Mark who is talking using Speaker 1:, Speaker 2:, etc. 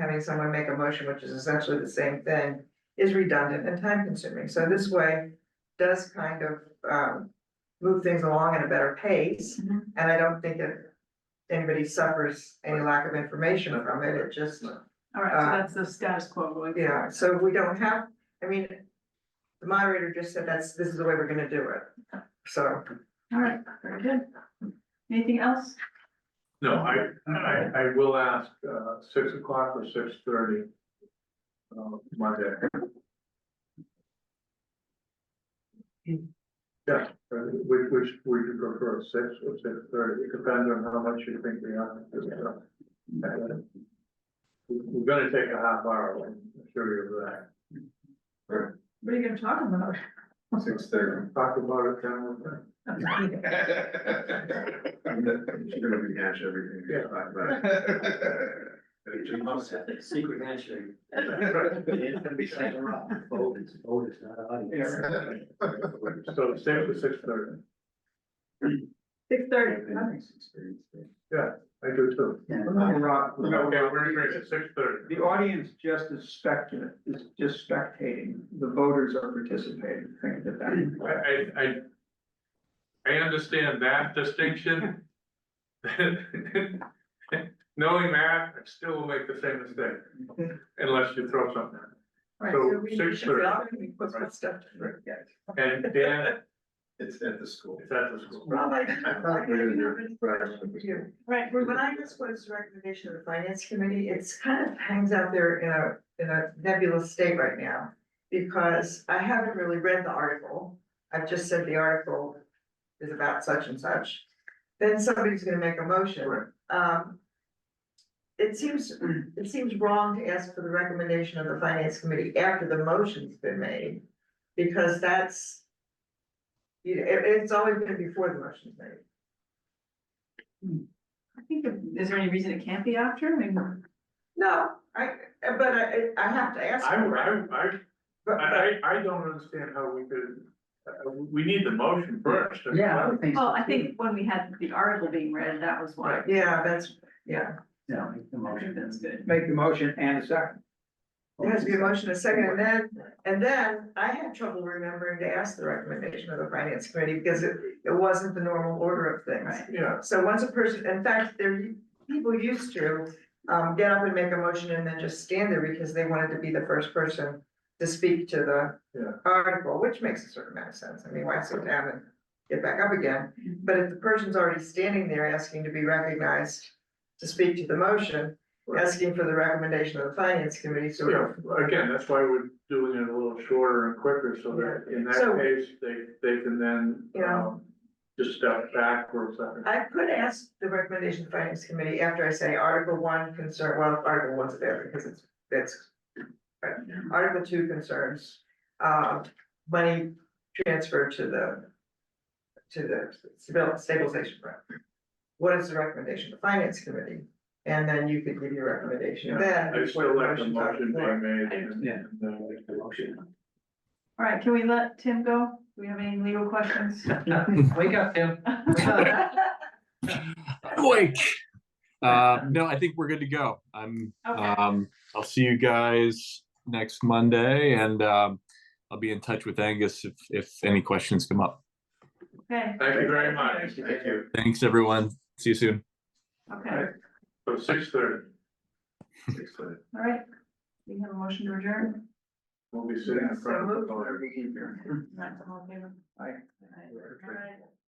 Speaker 1: having someone make a motion, which is essentially the same thing, is redundant and time consuming. So this way does kind of um move things along at a better pace.
Speaker 2: Mhm.
Speaker 1: And I don't think that anybody suffers any lack of information from it. It just
Speaker 2: All right,
Speaker 1: Uh,
Speaker 2: so that's the status quo going.
Speaker 1: yeah, so we don't have, I mean, the moderator just said that's, this is the way we're gonna do it. So,
Speaker 2: All right, very good. Anything else?
Speaker 3: No, I, I, I will ask, uh, six o'clock or six thirty. Uh, Monday. Yeah, uh, which, which would you prefer, six or six thirty, it depends on how much you think we have. to do, so. Uh, we- We're gonna take a half hour, I'm sure you're right.
Speaker 2: What are you gonna talk about?
Speaker 4: Six thirty.
Speaker 3: Talk about it then, we'll think.
Speaker 4: You're gonna rehash everything. we talked about. But it just must happen.
Speaker 5: Secret handshake. It's gonna be
Speaker 4: Yeah.
Speaker 5: sent around. Vote is, vote is not audience.
Speaker 3: so six or six thirty,
Speaker 2: Six thirty,
Speaker 3: I do too. Okay, we're gonna at six thirty.
Speaker 6: The audience just is speculative, is just spectating, the voters are participating, think of that.
Speaker 3: I, I, I. I understand that distinction. Knowing that, I still will make the same mistake, unless you throw something
Speaker 1: right,
Speaker 3: So,
Speaker 1: so we should
Speaker 3: six thirty.
Speaker 1: be all we put some stuff to work, guys.
Speaker 3: at it. And Dan,
Speaker 4: It's at the school.
Speaker 3: it's at the school.
Speaker 1: Rob, I- I
Speaker 4: agree with you.
Speaker 1: have a question for you.
Speaker 2: right, we're
Speaker 1: When I just was recommendation of the finance committee, it's kind of hangs out there in a, in a nebulous state right now. Because I haven't really read the article, I've just said the article is about such and such. Then somebody's gonna make a motion, um. It seems, it seems wrong to ask for the recommendation of the finance committee after the motion's been made, because that's. You, it- it's always been before the motion's made.
Speaker 2: I think, if- is there any reason it can't be after? I mean,
Speaker 1: No, I, but I, I have to ask.
Speaker 3: I,
Speaker 1: for it.
Speaker 3: I, I,
Speaker 1: But- but-
Speaker 3: I, I don't understand how we could, uh, we need the motion first.
Speaker 5: Yeah, I would think. so,
Speaker 2: well, I
Speaker 5: too.
Speaker 2: think when we had the article being read, that was why.
Speaker 1: Yeah, that's, yeah,
Speaker 5: Yeah, make the
Speaker 2: I think
Speaker 5: motion.
Speaker 2: That's good.
Speaker 6: Make the motion and a second.
Speaker 1: there has to be a motion a second, and then, and then I had trouble remembering to ask the recommendation of the finance committee, because it, it wasn't the normal order of things.
Speaker 2: Right.
Speaker 3: Yeah,
Speaker 1: So once a person, in fact, there, people used to, um, get up and make a motion and then just stand there because they wanted to be the first person to speak to the
Speaker 3: Yeah.
Speaker 1: article, which makes a certain amount of sense, I mean, why sit down and get back up again?
Speaker 2: Mhm.
Speaker 1: But if the person's already standing there asking to be recognized to speak to the motion, asking for the recommendation of the finance committee, so.
Speaker 3: yeah, again, that's why we're doing it a little shorter and quicker, so that in
Speaker 1: So-
Speaker 3: that case, they, they can then,
Speaker 1: Yeah.
Speaker 3: um. Just step back for a second.
Speaker 1: I could ask the recommendation of the finance committee after I say article one concern, well, article one's there because it's, it's. but Article two concerns, uh, money transfer to the. To the stabil- stabilization fund. What is the recommendation of the finance committee? And then you could give your recommendation then.
Speaker 3: I
Speaker 1: before the
Speaker 3: still like the
Speaker 1: motion's on
Speaker 3: motion
Speaker 1: floor.
Speaker 3: being made. and-
Speaker 5: Yeah.
Speaker 3: and, uh,
Speaker 5: Make the motion.
Speaker 2: All right, can we let Tim go? Do we have any legal questions?
Speaker 5: Wake up, Tim.
Speaker 7: Wait. Uh, no, I think we're good to go. I'm,
Speaker 2: Okay.
Speaker 7: um, I'll see you guys next Monday and, um, I'll be in touch with Angus if, if any questions come up.
Speaker 2: Okay,
Speaker 3: Thank you very much.
Speaker 4: Thank you.
Speaker 7: Thanks, everyone. See you soon.
Speaker 2: okay,
Speaker 3: So six thirty,
Speaker 4: Six thirty.
Speaker 2: all right. We have a motion to adjourn.
Speaker 3: we'll be sitting in front of the.
Speaker 1: So
Speaker 3: door.
Speaker 2: Not all in favor?
Speaker 6: Aye.
Speaker 2: All right. All right.